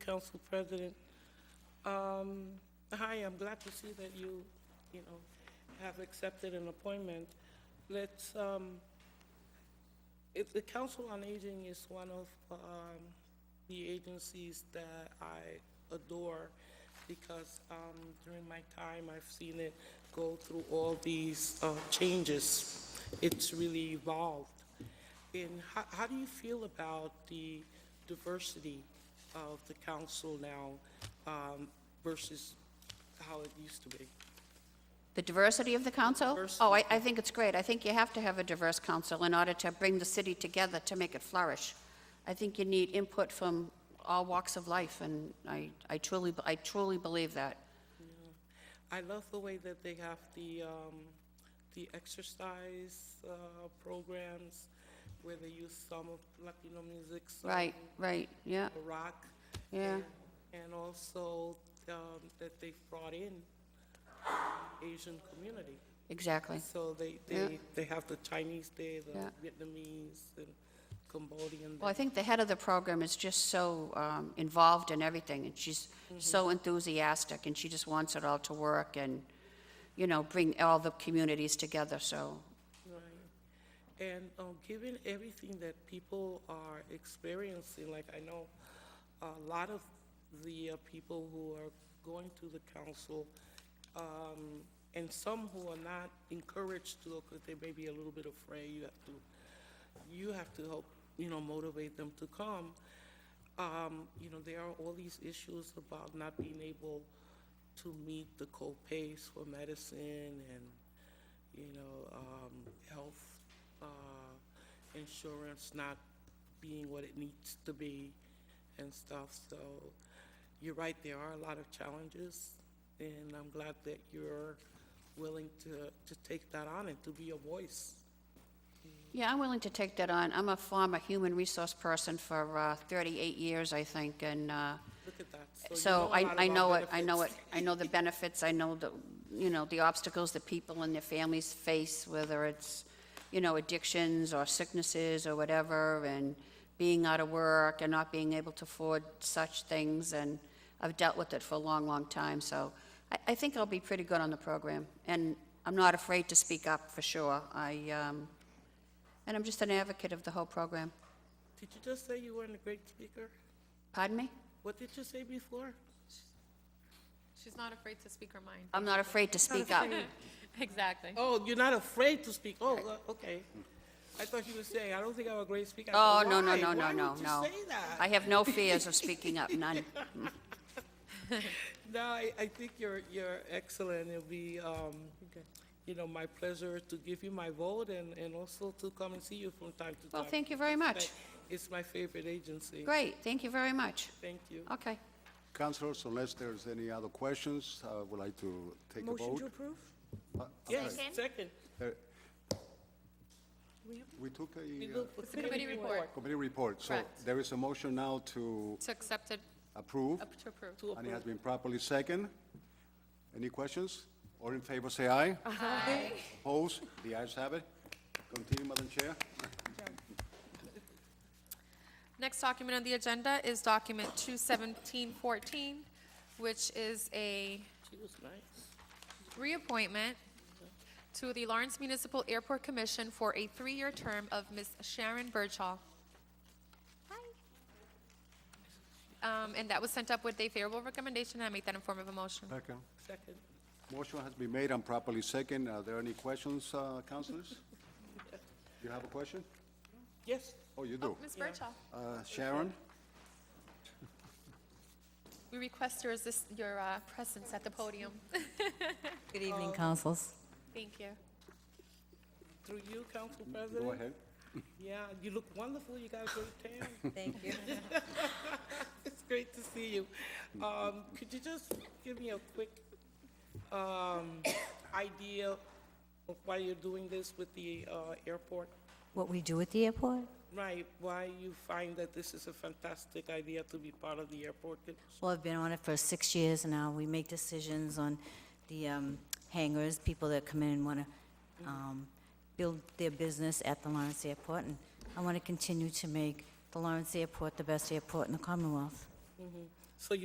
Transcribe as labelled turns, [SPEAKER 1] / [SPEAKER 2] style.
[SPEAKER 1] Council President. Um, Hi, I'm glad to see that you, you know, have accepted an appointment. Let's, um, it- the Council on Aging is one of um, the agencies that I adore because um, during my time, I've seen it go through all these uh, changes. It's really evolved. And how, how do you feel about the diversity of the council now um, versus how it used to be?
[SPEAKER 2] The diversity of the council?
[SPEAKER 1] Diversity.
[SPEAKER 2] Oh, I, I think it's great. I think you have to have a diverse council in order to bring the city together to make it flourish. I think you need input from all walks of life, and I, I truly, I truly believe that.
[SPEAKER 1] I love the way that they have the, um, the exercise, uh, programs where they use some of Latino music, some
[SPEAKER 2] Right, right, yeah,
[SPEAKER 1] rock.
[SPEAKER 2] Yeah.
[SPEAKER 1] and- And also, um, that they've brought in Asian community.
[SPEAKER 2] exactly.
[SPEAKER 1] So they,
[SPEAKER 2] Yeah.
[SPEAKER 1] they, they have the Chinese there, the
[SPEAKER 2] Yeah.
[SPEAKER 1] Vietnamese and Cambodian.
[SPEAKER 2] Well, I think the head of the program is just so um, involved in everything, and she's so enthusiastic, and she just wants it all to work and, you know, bring all the communities together, so,
[SPEAKER 1] Right. And um, given everything that people are experiencing, like I know a lot of the uh, people who are going to the council, um, and some who are not encouraged to, because they may be a little bit afraid, you have to, you have to help, you know, motivate them to come. Um, You know, there are all these issues about not being able to meet the co-pays for medicine and, you know, um, health, uh, insurance not being what it needs to be and stuff. So you're right, there are a lot of challenges, and I'm glad that you're willing to, to take that on and to be a voice.
[SPEAKER 2] Yeah, I'm willing to take that on. I'm a former human resource person for uh, 38 years, I think, and uh,
[SPEAKER 1] Look at that. you
[SPEAKER 2] so
[SPEAKER 1] know a lot
[SPEAKER 2] I I
[SPEAKER 1] about
[SPEAKER 2] know it, I know it,
[SPEAKER 1] benefits.
[SPEAKER 2] I know the benefits, I know the, you know, the obstacles that people and their families face, whether it's, you know, addictions or sicknesses or whatever, and being out of work and not being able to afford such things, and I've dealt with it for a long, long time, so I I think I'll be pretty good on the program, and I'm not afraid to speak up, for sure. I, um, and I'm just an advocate of the whole program.
[SPEAKER 1] Did you just say you weren't a great speaker?
[SPEAKER 2] Pardon me?
[SPEAKER 1] What did you say before?
[SPEAKER 3] She's not afraid to speak her mind.
[SPEAKER 2] I'm not afraid to speak up.
[SPEAKER 3] Exactly.
[SPEAKER 1] Oh, you're not afraid to speak. Oh, uh, okay. I thought you were saying, I don't think I'm a great speaker. I
[SPEAKER 2] Oh,
[SPEAKER 1] said,
[SPEAKER 2] no, no,
[SPEAKER 1] "Why?
[SPEAKER 2] no, no,
[SPEAKER 1] Why
[SPEAKER 2] no,
[SPEAKER 1] would you
[SPEAKER 2] no.
[SPEAKER 1] say that?
[SPEAKER 2] I have no fears of speaking up, none.
[SPEAKER 1] No, I, I think you're, you're excellent. It'll be, um, you know, my pleasure to give you my vote and, and also to come and see you from time to time.
[SPEAKER 2] Well, thank you very much.
[SPEAKER 1] It's my favorite agency.
[SPEAKER 2] Great, thank you very much.
[SPEAKER 1] Thank you.
[SPEAKER 2] Okay.
[SPEAKER 4] Councilors, unless there's any other questions, I would like to take a
[SPEAKER 5] Motion to
[SPEAKER 4] vote.
[SPEAKER 5] approve?
[SPEAKER 4] Uh, I'm
[SPEAKER 1] Yes,
[SPEAKER 4] sorry.
[SPEAKER 1] second.
[SPEAKER 4] There- We took
[SPEAKER 1] We
[SPEAKER 4] a uh,
[SPEAKER 1] look for
[SPEAKER 3] It's a committee report.
[SPEAKER 4] committee report, so
[SPEAKER 3] Correct.
[SPEAKER 4] there is a motion now to
[SPEAKER 3] To accept it,
[SPEAKER 4] approve,
[SPEAKER 3] up to approve.
[SPEAKER 1] to
[SPEAKER 4] and it
[SPEAKER 1] approve.
[SPEAKER 4] has been properly second. Any questions? All in favor, say aye. Aye. Opposed? The ayes have it. Continue, Madam Chair.
[SPEAKER 3] Next document on the agenda is document 21714, which is a
[SPEAKER 1] She was nice.
[SPEAKER 3] reappointment to the Lawrence Municipal Airport Commission for a three-year term of Ms. Sharon Birchall. Um, And that was sent up with a favorable recommendation. I make that in form of a motion.
[SPEAKER 4] Second.
[SPEAKER 1] Second.
[SPEAKER 4] Motion has been made and properly second. Are there any questions, uh, councilors? You have a question?
[SPEAKER 1] Yes,
[SPEAKER 4] Oh, you do.
[SPEAKER 3] Oh, Ms. Birchall,
[SPEAKER 4] Uh, Sharon?
[SPEAKER 3] we request your assist- your uh, presence at the podium.
[SPEAKER 6] Good evening, councils.
[SPEAKER 3] Thank you.
[SPEAKER 1] through you, Council President.
[SPEAKER 4] Mm, Go ahead.
[SPEAKER 1] Yeah, you look wonderful. You got a great tan.
[SPEAKER 6] Thank you.
[SPEAKER 1] It's great to see you. Um, Could you just give me a quick um, idea of why you're doing this with the uh, airport?
[SPEAKER 6] What we do at the airport?
[SPEAKER 1] Right, why you find that this is a fantastic idea to be part of the airport?
[SPEAKER 6] Well, I've been on it for six years now. We make decisions on the um, hangars, people that come in and want to build their business at the Lawrence Airport. And I want to continue to make the Lawrence Airport the best airport in the Commonwealth.